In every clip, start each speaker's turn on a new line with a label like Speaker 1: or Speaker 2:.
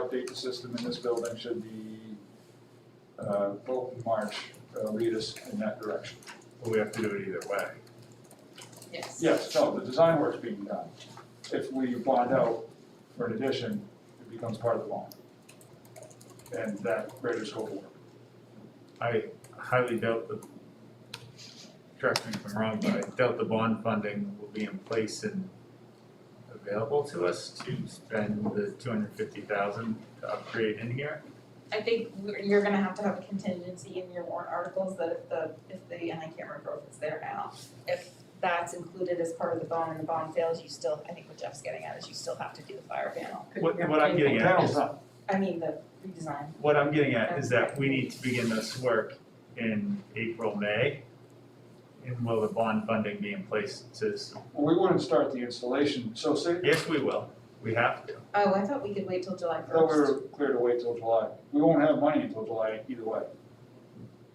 Speaker 1: update the system in this building should the uh, vote in March uh, lead us in that direction.
Speaker 2: Well, we have to do it either way.
Speaker 3: Yes.
Speaker 1: Yes, no, the design work's being done. If we bond out for an addition, it becomes part of the loan. And that greater scope of work.
Speaker 2: I highly doubt the, correct me if I'm wrong, but I doubt the bond funding will be in place and available to us to spend the two hundred fifty thousand to upgrade in here.
Speaker 3: I think we're- you're gonna have to have a contingency in your warrant articles that if the, if the, and I can't remember if it's there now, if that's included as part of the bond and the bond fails, you still, I think what Jeff's getting at is you still have to do the fire panel.
Speaker 2: What, what I'm getting at
Speaker 1: Panel's
Speaker 2: is,
Speaker 1: done.
Speaker 3: I mean, the redesign.
Speaker 2: what I'm getting at is that we need to begin this work in April, May. And will the bond funding be in place to, s-
Speaker 1: Well, we wouldn't start the installation, so say,
Speaker 2: yes, we will, we have to.
Speaker 3: Oh, I thought we could wait till
Speaker 1: I
Speaker 3: July first.
Speaker 1: thought we were clear to wait till July. We won't have money until July either way.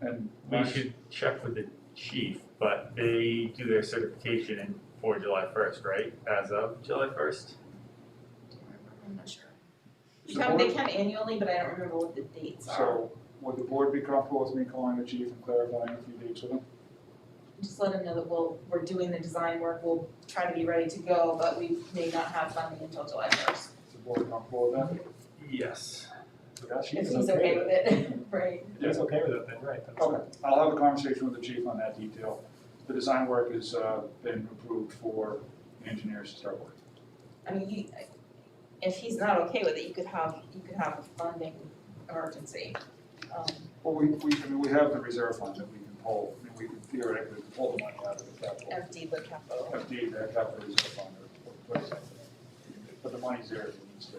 Speaker 1: And
Speaker 2: We should check with the chief, but they do their certification in for July first, right? As of July first?
Speaker 3: I'm not sure.
Speaker 1: So
Speaker 3: Come, they
Speaker 1: what-
Speaker 3: come annually, but I don't remember what the dates are.
Speaker 1: So would the board be comfortable with me calling the chief and clarifying a few dates with him?
Speaker 3: Just let them know that we'll, we're doing the design work, we'll try to be ready to go, but we may not have funding until July first,
Speaker 1: Is the board comfortable with
Speaker 2: Yes.
Speaker 1: that?
Speaker 3: if he's okay with it, right?
Speaker 1: He's
Speaker 2: okay with it then, right?
Speaker 1: Okay, I'll have a conversation with the chief on that detail. The design work has uh, been approved for engineers to start working.
Speaker 3: I mean, he, if he's not okay with it, you could have, you could have a funding emergency. Um,
Speaker 1: Well, we, we, I mean, we have the reserve fund that we can pull, I mean, we could theoretically pull the money out of the capital.
Speaker 3: empty the capital.
Speaker 1: FD, that capital reserve fund, or place But the money's there if it needs to.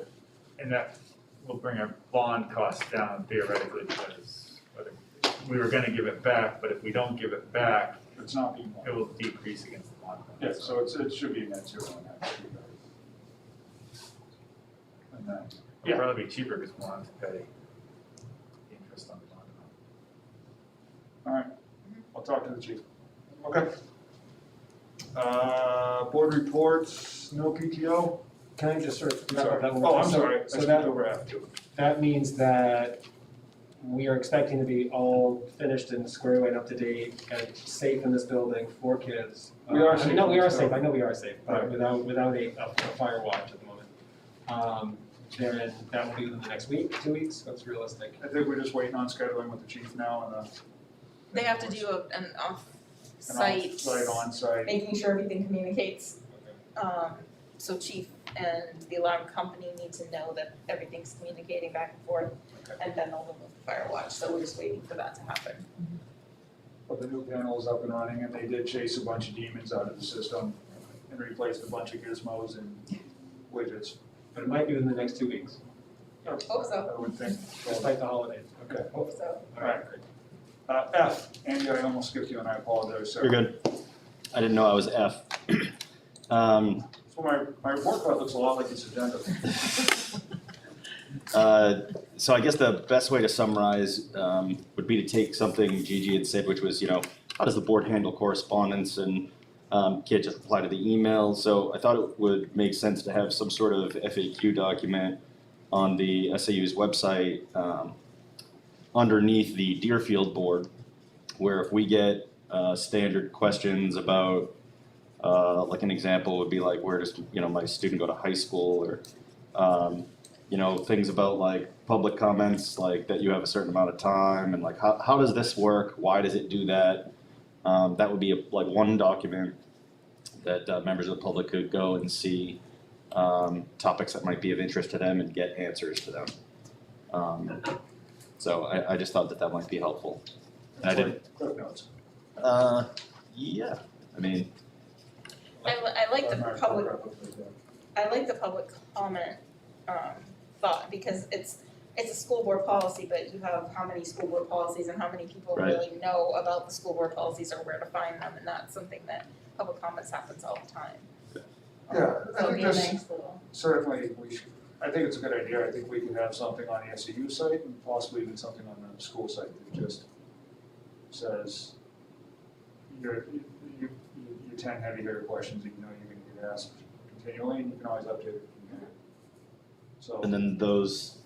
Speaker 2: And that will bring our bond costs down theoretically because whether we were gonna give it back, but if we don't give it back,
Speaker 1: It's not being
Speaker 2: it
Speaker 1: borne.
Speaker 2: will decrease against the bond. fund.
Speaker 1: Yeah, so it's, it should be a net zero on that. And that,
Speaker 2: It'll probably be cheaper because we'll have to pay the interest on the bond.
Speaker 1: all right, I'll talk to the chief. Okay. Uh, board reports, no PTO?
Speaker 4: Can I just sort of
Speaker 1: I'm sorry.
Speaker 4: clarify one more
Speaker 1: Oh, I'm
Speaker 4: time?
Speaker 1: sorry, I
Speaker 4: So
Speaker 1: skipped
Speaker 4: that,
Speaker 1: over F two.
Speaker 4: that means that we are expecting to be all finished and square away and up to date and safe in this building for kids.
Speaker 1: We are
Speaker 4: Uh, I
Speaker 1: safe
Speaker 4: mean, No,
Speaker 1: in
Speaker 4: we
Speaker 1: this
Speaker 4: are safe,
Speaker 1: building.
Speaker 4: I know we are safe,
Speaker 1: Right.
Speaker 4: but without, without a, a fire watch at the moment. Um, therein, that will be within the next week, two weeks, that's realistic.
Speaker 1: I think we're just waiting on scheduling with the chief now and, uh.
Speaker 5: They have to do a, an off-site,
Speaker 1: Site, on-site,
Speaker 3: Making sure everything communicates,
Speaker 4: Okay.
Speaker 3: um, so chief and the alarm company need to know that everything's communicating back and forth. And then they'll remove the fire watch, so we're just waiting for that to happen.
Speaker 1: but the new panel is up and running and they did chase a bunch of demons out of the system and replaced a bunch of gizmos and widgets.
Speaker 4: But it might be within the next two weeks,
Speaker 3: Hope so,
Speaker 1: I would think.
Speaker 4: despite the holidays.
Speaker 1: Okay.
Speaker 3: hope so.
Speaker 4: All right, great.
Speaker 1: Uh, F, Andy, I almost skipped you and I apologize, sir.
Speaker 6: You're good. I didn't know I was F. Um,
Speaker 1: So my, my report card looks a lot like this agenda.
Speaker 6: uh, so I guess the best way to summarize um, would be to take something Gigi had said, which was, you know, how does the board handle correspondence and um, can't just reply to the email. So I thought it would make sense to have some sort of FAQ document on the SAU's website um, underneath the Deerfield board, where if we get uh, standard questions about, uh, like an example would be like, where does you know my student go to high school or um, you know, things about like public comments, like that you have a certain amount of time and like how, how does this work? Why does it do that? Um, that would be a, like one document that uh, members of the public could go and see um, topics that might be of interest to them and get answers to them. Um, so I, I just thought that that might be helpful. I didn't-
Speaker 1: Cliff notes.
Speaker 6: Uh, yeah, I mean,
Speaker 3: I li- I like the
Speaker 1: My report
Speaker 3: public
Speaker 1: card looks like that.
Speaker 3: I like the public comment um thought because it's it's a school board policy, but you have how many school board policies and how many people
Speaker 6: Right.
Speaker 3: really know about the school board policies or where to find them, and that's something that public comments happens all the time.
Speaker 1: Yeah,
Speaker 3: So
Speaker 1: I
Speaker 3: it'd be
Speaker 1: think
Speaker 3: a
Speaker 1: this,
Speaker 3: nice little,
Speaker 1: certainly, we should, I think it's a good idea. I think we could have something on the SAU site and possibly even something on the school site that just says, you're, you, you, you tend heavy hitter questions, that you know, you're gonna get asked continually, and you can always update it. from there. So.
Speaker 6: and then those